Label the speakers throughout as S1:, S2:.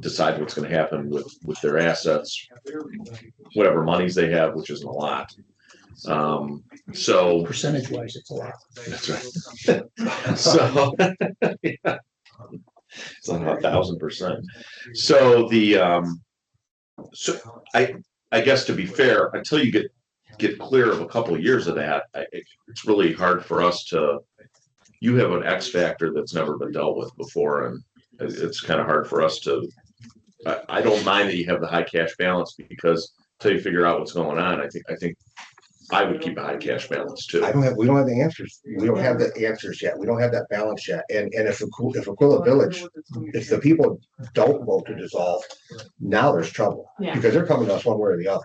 S1: decide what's gonna happen with, with their assets, whatever monies they have, which isn't a lot. Um, so,
S2: Percentage wise, it's a lot.
S1: that's right. So. yeah. It's like a thousand percent. So the, um, so I, I guess to be fair, until you get, get clear of a couple of years of that, I, it- it's really hard for us to, you have an X factor that's never been dealt with before and it- it's kind of uh, hard for us to, I, I don't mind that you have the high cash balance because until you figure out what's going on, I think, I think I would keep a high cash balance too.
S3: I don't have, we don't have the answers. We don't have the answers yet. We don't have that balance yet. And, and if, Aqu- if Aquila Village, if the people don't vote to dissolve, now there's trouble.
S4: Yeah.
S3: Because they're coming to us one way or the other.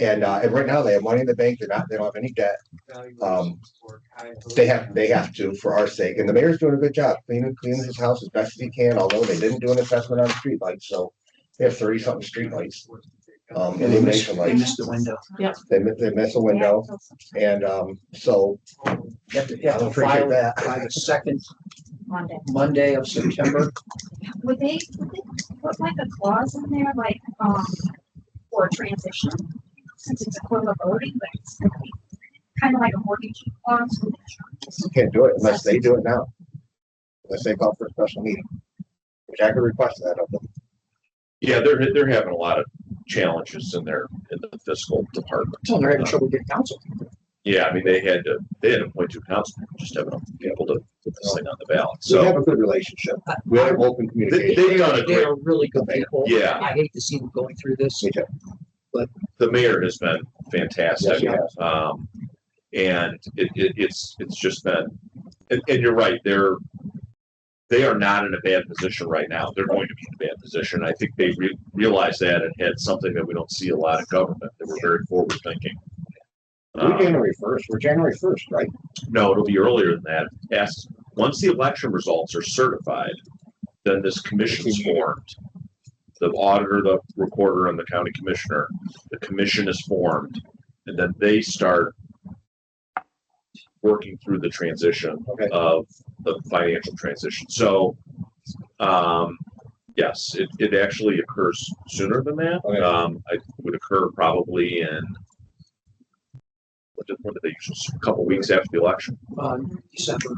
S3: And, uh, and right now they have money in the bank. They're not, they don't have any debt. um, They have, they have to for our sake. And the mayor's doing a good job cleaning, cleaning his house as best as he can, although they didn't do an assessment on the streetlights. So they have thirty something streetlights, um,
S2: They missed
S3: illumination
S2: they
S3: lights.
S2: missed the window.
S3: They, mi- they miss a window. And, um, so
S2: Yeah,
S3: I
S2: they'll
S3: appreciate
S2: file
S3: that.
S2: that by the second
S5: Monday.
S2: Monday of September.
S5: Would they, would they put like a clause in there, like, um, for transition? Since it's a quarter voting, but it's gonna be kind of like a mortgage clause with insurance.
S3: can't do it unless they do it now. Unless they call for a special meeting. Which I could request that of them.
S1: Yeah, they're, they're having a lot of challenges in their, in the fiscal department.
S2: So they're having trouble getting counsel.
S1: Yeah, I mean, they had to, they had to appoint two councilmen, just haven't been able to put this thing on the ballot,
S3: So we
S1: so.
S3: have a good relationship. We have open
S1: They,
S3: communication.
S1: they've done a
S2: They
S1: great,
S2: are really good people.
S1: yeah,
S2: I hate to see them going through this.
S3: Me too.
S1: the mayor has been
S3: Yes,
S1: fantastic.
S3: he has.
S1: Um, and it, it, it's, it's just been, and, and you're right, they're, they are not in a bad position right now. They're going to be in a bad position. I think they re- realized that and had something that we don't see a lot of government. They were very forward thinking. uh, Um,
S3: We're January first, we're January first, right?
S1: No, it'll be earlier than that. As, once the election results are certified, then this commission's formed. The auditor, the recorder, and the county commissioner, the commission is formed, and then they start working through the transition
S3: Okay.
S1: of the financial transition. So, um, yes, it, it actually occurs sooner than that.
S3: Okay.
S1: Um, it would occur probably in what did, what did they use? A couple weeks after the election,
S6: um,
S2: On December.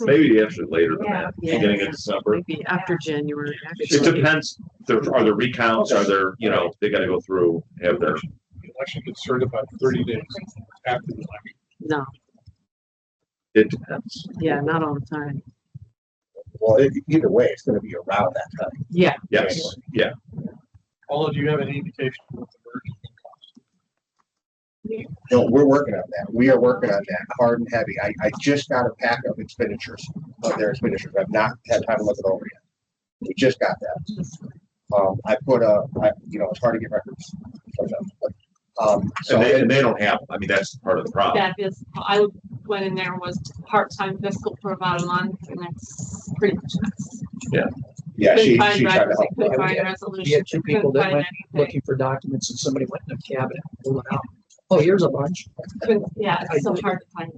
S1: maybe actually later than that,
S4: Yeah.
S1: beginning of December.
S4: Maybe after January.
S1: It depends. There are there recounts? Are there you know they got to go through have their
S6: The election gets certified thirty days after the election.
S4: No,
S1: it depends.
S4: yeah, not all the time.
S3: Well, e- either way, it's gonna be around that time.
S4: Yeah,
S1: Yes, yeah.
S6: Paula, do you have any indication of what the merger is gonna
S3: No, we're working on that. We are working on that hard and heavy. I, I just got a pack of expenditures, of their expenditures. I've not had time to look it over yet. We just got that. Um, I put a, I, you know, it's hard to get records sometimes, but, um, so.
S1: And they, and they don't have. I mean that's part of the problem.
S7: that is, I went in there was part-time fiscal for about a month and that's pretty much. us.
S3: Yeah, she,
S7: Couldn't
S3: she
S7: find
S3: tried to
S7: records,
S3: help.
S7: I couldn't
S2: Yeah, we
S7: find
S2: had- we
S7: resolutions,
S2: had two
S7: I
S2: people
S7: couldn't
S2: that
S7: find
S2: went
S7: anything.
S2: Looking for documents and somebody went in the cabinet, pulled it out. Oh, here's a bunch.
S7: Couldn't- Yeah,
S2: I
S7: it's so
S2: did.
S7: hard to find.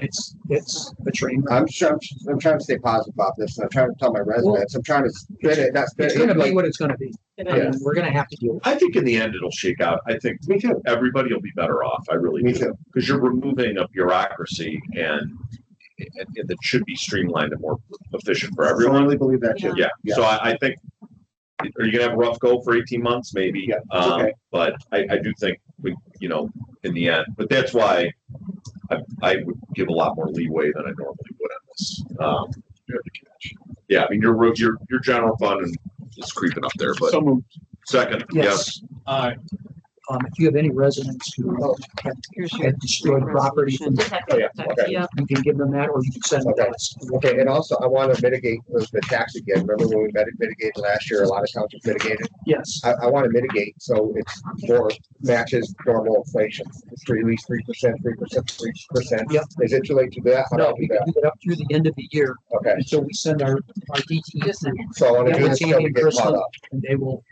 S2: It's, it's a train. wreck.
S3: I'm trying, I'm trying to stay positive about this, and I'm trying to tell my residents, I'm trying to spin it, not spin
S2: It's gonna
S3: it.
S2: be
S3: like-
S2: what it's gonna be.
S7: It
S3: Oh,
S2: I mean,
S7: is.
S2: we're gonna have to deal with
S1: I think in the end it'll shake out. I think
S3: Me too,
S1: everybody will be better off. I really
S3: me
S1: do.
S3: too.
S1: Because you're removing a bureaucracy and, and and that should be streamlined and more efficient for
S3: I
S1: everyone.
S3: really believe that too.
S1: Yeah,
S3: Yeah.
S1: so I, I think, are you gonna have a rough go for eighteen months, maybe?
S3: Yeah, it's
S1: Um,
S3: okay.
S1: But I, I do think we, you know, in the end, but that's why I, I would give a lot more leeway than I normally would on this. Um, yeah, I mean, your, ro- your, your general fund is creeping up there,
S6: cost?
S1: but
S6: moved.
S1: second, yes,
S2: Yes.
S6: Aye.
S2: Um, if you have any residents who have
S4: here's your.
S2: had destroyed property from,
S7: Just have to
S3: Oh, yeah,
S7: protect-
S3: okay.
S7: yeah.
S2: you can give them that or you can send them to us.
S3: Okay, and also, I want to mitigate the the tax again, remember when we miti- mitigated last year, a lot of towns mitigated?
S2: Yes.
S3: I, I want to mitigate, so it's more matches normal inflation, three, at least three percent, three percent, three percent.
S2: Yep.
S3: Is it too late to do that? How do I
S2: No,
S3: do
S2: we can
S3: that?
S2: do it up through the end of the year
S3: Okay,
S2: until we send our, our DT
S7: Just-
S3: so I want
S2: Yeah,
S3: to do
S2: we'll
S3: this
S2: see
S3: till we
S2: in
S3: get caught
S2: person.
S3: up.
S2: and they will,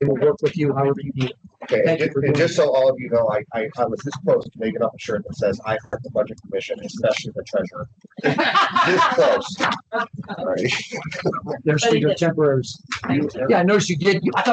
S2: We will work with you however you need.
S3: Okay, and
S2: Thank you
S3: ju-
S2: for
S3: and
S2: doing
S3: just so all of you know, I, I, I was this close to making up a shirt that says, I heart the budget commission, especially the treasurer. This close. All right.
S2: There's for your temporaries. Yeah, I noticed you did. you- I thought